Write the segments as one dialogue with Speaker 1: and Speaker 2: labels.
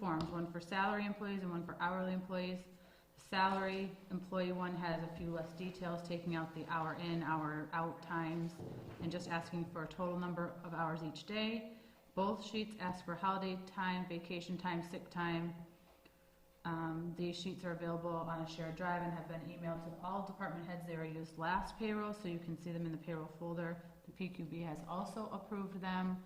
Speaker 1: forms, one for salary employees and one for hourly employees. Salary employee one has a few less details, taking out the hour in, hour out times, and just asking for a total number of hours each day. Both sheets ask for holiday time, vacation time, sick time. Um, these sheets are available on a shared drive and have been emailed to all department heads. They were used last payroll, so you can see them in the payroll folder. The PQB has also approved them.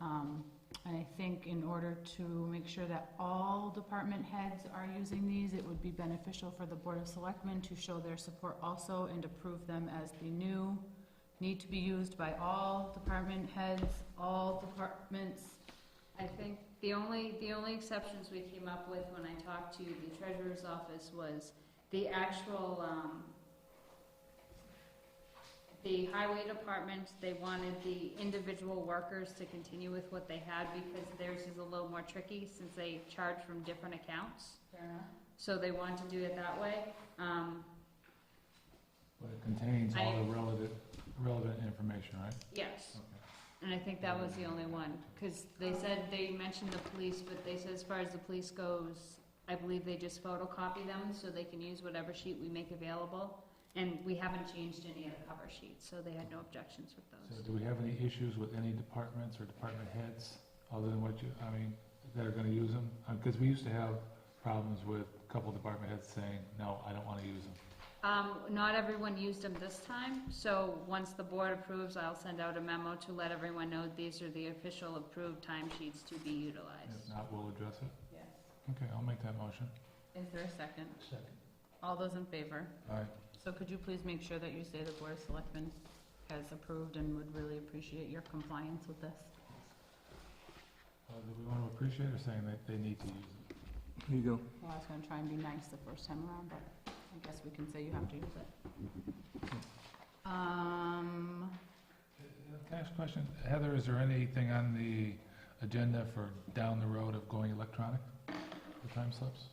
Speaker 1: Um, and I think in order to make sure that all department heads are using these, it would be beneficial for the Board of Selectmen to show their support also and approve them as the new, need to be used by all department heads, all departments.
Speaker 2: I think the only, the only exceptions we came up with when I talked to the treasurer's office was the actual, um, the highway department, they wanted the individual workers to continue with what they had because theirs is a little more tricky since they charge from different accounts.
Speaker 1: Fair enough.
Speaker 2: So they wanted to do it that way. Um,
Speaker 3: But it contains all
Speaker 2: I-
Speaker 3: the relevant, relevant information, right?
Speaker 2: yes.
Speaker 3: Okay.
Speaker 2: And I think that was the only one, because they said, they mentioned the police, but they said as far as the police goes, I believe they just photocopy them, so they can use whatever sheet we make available. And we haven't changed any of the cover sheets, so they had no objections with
Speaker 3: So
Speaker 2: those.
Speaker 3: do we have any issues with any departments or department heads, other than what you, I mean, that are gonna use them? Because we used to have problems with a couple department heads saying, no, I don't wanna use them.
Speaker 2: Um, not everyone used them this time, so once the board approves, I'll send out a memo to let everyone know these are the official approved timesheets to be
Speaker 3: If
Speaker 2: utilized.
Speaker 3: not, we'll address it.
Speaker 1: Yes.
Speaker 3: Okay, I'll make that motion.
Speaker 1: Is there a second?
Speaker 3: Second.
Speaker 1: All those in favor?
Speaker 3: All right,
Speaker 1: So could you please make sure that you say the Board of Selectmen has approved and would really appreciate your compliance with this?
Speaker 3: uh, do we wanna appreciate or saying that they need to use it?
Speaker 4: There you go.
Speaker 1: Well, I was gonna try and be nice the first time around, but I guess we can say you have to use it. Um,
Speaker 3: Can I ask a question? Heather, is there anything on the agenda for down the road of going electronic for time slips?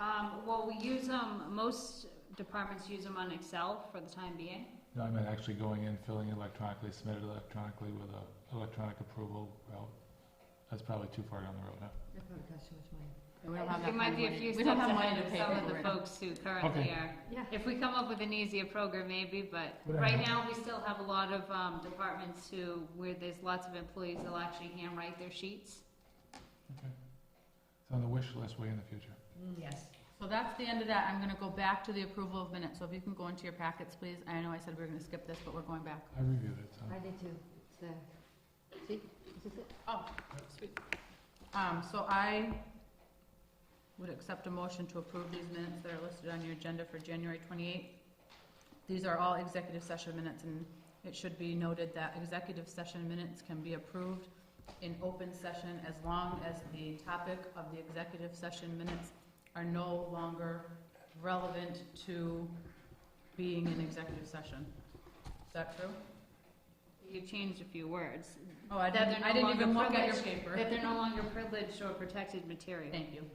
Speaker 2: Um, well, we use them, most departments use them on Excel for the time being.
Speaker 3: No, I meant actually going in, filling in electronically, submitted electronically with a electronic approval route. That's probably too far down the road, huh?
Speaker 5: That probably costs too much money.
Speaker 1: we don't have that
Speaker 2: It might
Speaker 1: kind of
Speaker 2: be a
Speaker 1: money-
Speaker 2: few
Speaker 1: we don't
Speaker 2: steps
Speaker 1: have money
Speaker 2: ahead
Speaker 1: to
Speaker 2: of
Speaker 1: pay
Speaker 2: some of
Speaker 1: people
Speaker 2: the
Speaker 1: right now.
Speaker 2: folks who currently
Speaker 3: Okay.
Speaker 2: are.
Speaker 5: Yeah.
Speaker 2: If we come up with an easier program, maybe, but
Speaker 3: Whatever.
Speaker 2: right now, we still have a lot of, um, departments who, where there's lots of employees, they'll actually handwrite their sheets.
Speaker 3: Okay. It's on the wish list way in the future.
Speaker 1: Mm,
Speaker 2: Yes.
Speaker 1: So that's the end of that. I'm gonna go back to the approval of minutes, so if you can go into your packets, please. I know I said we were gonna skip this, but we're going back.
Speaker 3: I reviewed it, so.
Speaker 5: I did too. It's, uh, see, is this it?
Speaker 1: Oh, sweet. Um, so I would accept a motion to approve these minutes that are listed on your agenda for January twenty-eighth. These are all executive session minutes, and it should be noted that executive session minutes can be approved in open session as long as the topic of the executive session minutes are no longer relevant to being in executive session. Is that true?
Speaker 2: You changed a few words,
Speaker 1: Oh, I
Speaker 2: That
Speaker 1: didn't,
Speaker 2: they're
Speaker 1: I
Speaker 2: no
Speaker 1: didn't even
Speaker 2: longer
Speaker 1: look at your
Speaker 2: privileged.
Speaker 1: paper.
Speaker 2: that they're no longer privileged or protected material.
Speaker 1: Thank you.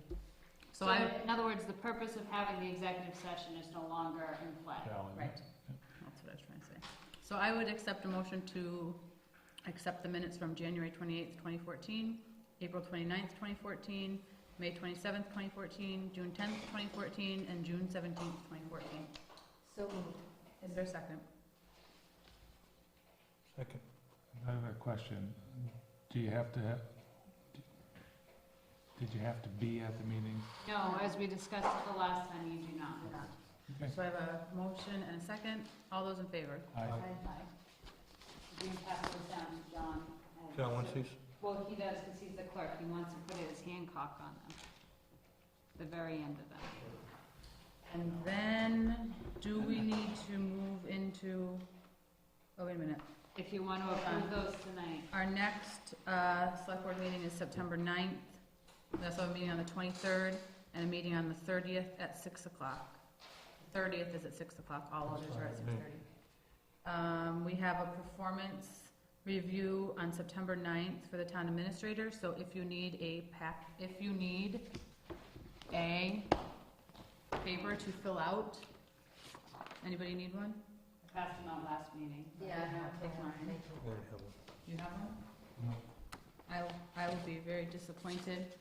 Speaker 2: So in other words, the purpose of having the executive session is no longer in play.
Speaker 3: valid.
Speaker 1: Right, that's what I was trying to say. So I would accept a motion to accept the minutes from January twenty-eighth, twenty fourteen, April twenty-ninth, twenty fourteen, May twenty-seventh, twenty fourteen, June tenth, twenty fourteen, and June seventeenth, twenty fourteen.
Speaker 5: So moved.
Speaker 1: Is there a second?
Speaker 4: Second.
Speaker 3: Another question. Do you have to have, did you have to be at the meeting?
Speaker 2: No, as we discussed the last time, you do not.
Speaker 3: Okay.
Speaker 1: So I have a motion and a second. All those in favor?
Speaker 3: I,
Speaker 2: You can pass those down to John. and-
Speaker 4: John wants these?
Speaker 2: Well, he does, because he's the clerk, he wants to put his Hancock on them, the very end of them.
Speaker 1: And then, do we need to move into, oh, wait a minute.
Speaker 2: If you want to approve those tonight,
Speaker 1: Our next uh, select board meeting is September 9th. That's a meeting on the 23rd and a meeting on the 30th at 6 o'clock. 30th is at 6 o'clock, all others are at 6:30. Um, We have a performance review on September 9th for the town administrator, so if you need a pack, if you need a paper to fill out, anybody need one?
Speaker 2: I passed them out last meeting.
Speaker 1: Yeah, I have
Speaker 5: Take mine.
Speaker 1: mine. You have one? I, I would be very disappointed